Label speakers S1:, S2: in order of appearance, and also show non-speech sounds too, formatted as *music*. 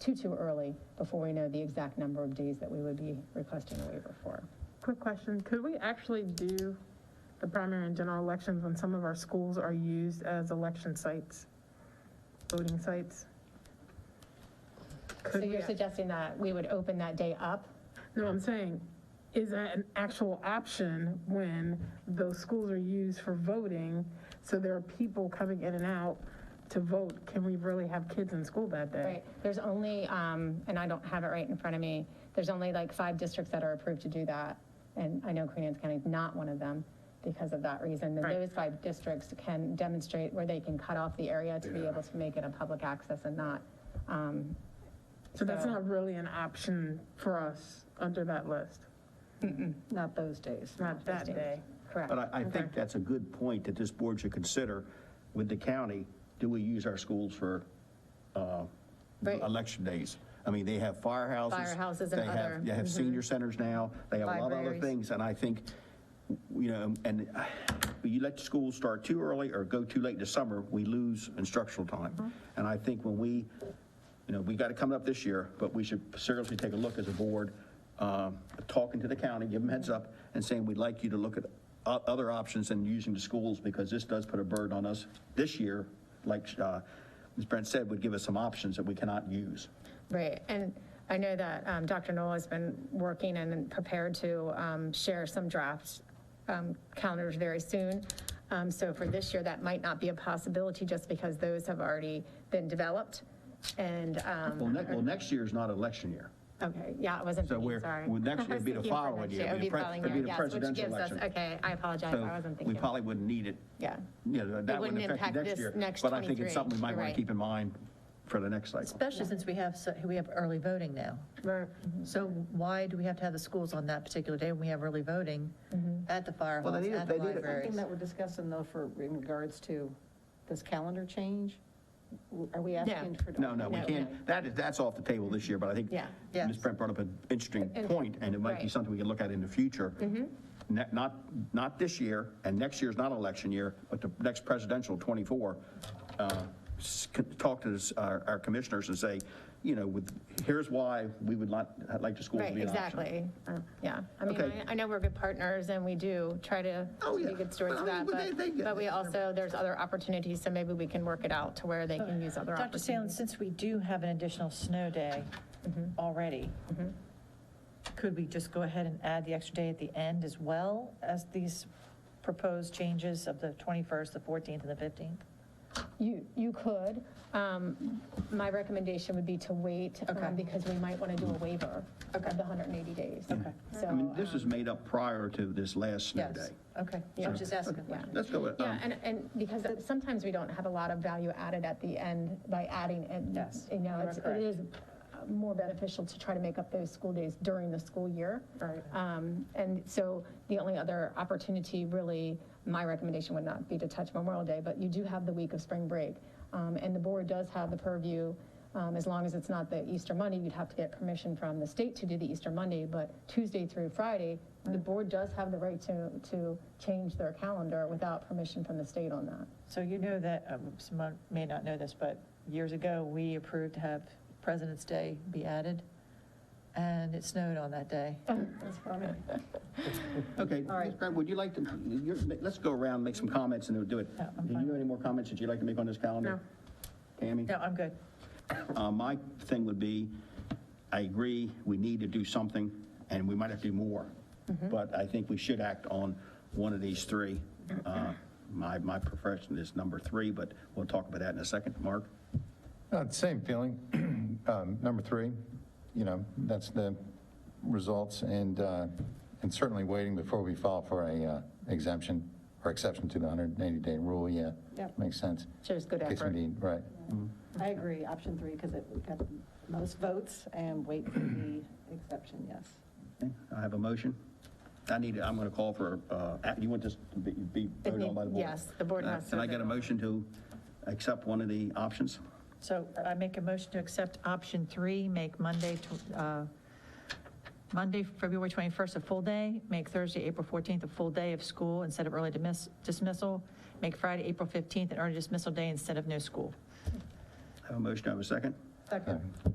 S1: too, too early before we know the exact number of days that we would be requesting a waiver for.
S2: Quick question, could we actually do the primary and general elections when some of our schools are used as election sites, voting sites?
S1: So
S2: Could we,
S1: you're suggesting that we would open that day up?
S2: no, I'm saying, is that an actual option when those schools are used for voting? So there are people coming in and out to vote, can we really have kids in school that day?
S1: Right, there's only, um, and I don't have it right in front of me, there's only like five districts that are approved to do that. And I know Queen Anne's County is not one of them because of that reason. And
S2: Right.
S1: those five districts can demonstrate where they can cut off the area to be able to make it a public access and not, um,
S2: So that's
S1: So-
S2: not really an option for us under that list,
S3: Not those days.
S2: not that day.
S1: correct.
S4: But I, I think that's a good point that this board should consider with the county. Do we use our schools for uh,
S1: Right.
S4: election days? I mean, they have firehouses.
S1: Firehouses and
S4: they have-
S1: other-
S4: They have senior centers now. They have a lot of other
S3: Libraries.
S4: things. And I think, you know, and uh, you let the school start too early or go too late in the summer, we lose instructional time. And I think when we, you know, we got to come up this year, but we should seriously take a look as a board, um, talking to the county, give them heads up, and saying, we'd like you to look at o- other options than using the schools, because this does put a burden on us this year, like uh, Ms. Brent said, would give us some options that we cannot use.
S1: Right, and I know that um, Dr. Noel has been working and prepared to um, share some draft um, calendars very soon. Um, So for this year, that might not be a possibility just because those have already been developed. And, um,
S4: Well, next, well, next year's not election year.
S1: okay, yeah, I wasn't
S4: So
S1: thinking,
S4: we're,
S1: sorry.
S4: well, next
S1: I
S4: year
S1: was
S4: would be the
S1: thinking for
S4: following
S1: next
S4: year.
S1: year. It would be
S4: pre-
S1: following
S4: it'd
S1: year,
S4: be the
S1: yes, which
S4: presidential
S1: gives us,
S4: election.
S1: okay, I apologize, I
S4: So
S1: wasn't
S4: we
S1: thinking.
S4: probably wouldn't need it.
S1: Yeah.
S4: You know, that
S1: wouldn't
S4: wouldn't affect
S1: impact
S4: you next
S1: this
S4: year.
S1: next
S4: But I think it's
S1: 23.
S4: something we might
S1: You're
S4: want
S1: right.
S4: to keep in mind for the next cycle.
S3: Especially since we have, so- we have early voting now. Mm-hmm.
S2: Right.
S3: So why do we have to have the schools on that particular day when we have early voting at the fire
S4: Well, they
S3: halls,
S4: need it-
S3: at the
S4: they need it.
S3: libraries?
S5: Mm-hmm. Something that we're discussing though for, in regards to this calendar change, are we asking for?
S4: No, no, we
S1: No,
S4: can't, that is, that's off the table this year, but I think
S1: Yeah.
S4: Ms.
S3: Yes.
S4: Brent brought up an interesting
S1: And-
S4: point, and it might be
S1: right. Mm-hmm.
S4: something we can look at in the future. Ne- Not, not this year, and next year's not election year, but the next presidential, 24, uh, s- c- talk to this- our our commissioners and say, you know, with, here's why we would not, I'd like the school to
S1: Right,
S4: be an option.
S1: exactly. Uh, Yeah, I mean,
S4: Okay.
S1: I- I know we're good partners and we do try to
S4: Oh,
S1: to be
S4: yeah.
S1: good stewards of
S4: But I
S1: that,
S4: mean, they- they
S1: but,
S4: get
S1: but we
S4: it.
S1: also, there's other opportunities, so maybe we can work it out to where they can use other
S3: Dr. Salins,
S1: opportunities.
S3: since we do have an additional snow day
S5: Mm-hmm.
S3: already, could we just go ahead and add the extra day at the end as well as these proposed changes of the 21st, the 14th, and the 15th?
S1: You, you could. Um, My recommendation would be to wait um,
S3: Okay.
S1: because we might want to do a waiver of the 180 days. Okay. So, um,
S4: I mean, this is made up prior to this last snow
S3: um, Yes,
S4: day.
S3: okay, so I'm just asking a
S1: yeah.
S3: question.
S4: Let's go with,
S1: Yeah,
S4: um,
S1: and, and because sometimes we don't have a lot of value added at the end by adding it.
S3: Yes,
S1: You know,
S3: you are
S1: it's- it
S3: correct.
S1: is uh, more beneficial to try to make up those school days during the school year.
S2: Right.
S1: Um, And so the only other opportunity, really, my recommendation would not be to touch Memorial Day, but you do have the week of spring break. Um, And the board does have the purview, um, as long as it's not the Easter Monday, you'd have to get permission from the state to do the Easter Monday, but Tuesday through Friday, the board does have the right to, to change their calendar without permission from the state on that.
S3: So you know that, um, someone may not know this, but years ago, we approved to have President's Day be added, and it snowed on that day.
S4: Okay, Ms. Grant, would you like to, you're- let's go around, make some comments, and then we'll do it.
S3: Yeah, I'm
S4: Do you
S3: fine.
S4: have any more comments that you'd like to make on this calendar? No. Tammy?
S3: No, I'm good.
S4: Uh, My thing would be, I agree, we need to do something, and we might have to do more,
S3: Mm-hmm.
S4: but I think we should act on one of these three. Uh, My, my profession is number three, but we'll talk about that in a second. Mark?
S6: Uh, Same feeling. *clears throat* Um, Number three, you know, that's the results, and, uh, and certainly waiting before we file for a uh, exemption or exception to the 180-day rule, yeah.
S5: Yep.
S6: Makes sense.
S1: Shows good
S6: In case we
S1: effort.
S6: need- Right.
S5: I agree, option three, because it got the most votes and wait for the exception, yes.
S4: I have a motion. I need, I'm going to call for, uh, a- you want this to be- be voted on by the board?
S1: Yes, the board
S4: Uh,
S1: has to
S4: Can I get a
S1: vote.
S4: motion to accept one of the options?
S3: So I make a motion to accept option three, make Monday, tw- uh, Monday, February 21st a full day, make Thursday, April 14th a full day of school instead of early dismiss- dismissal, make Friday, April 15th an early dismissal day instead of no school.
S4: I Have a motion, I have a second?
S3: Second.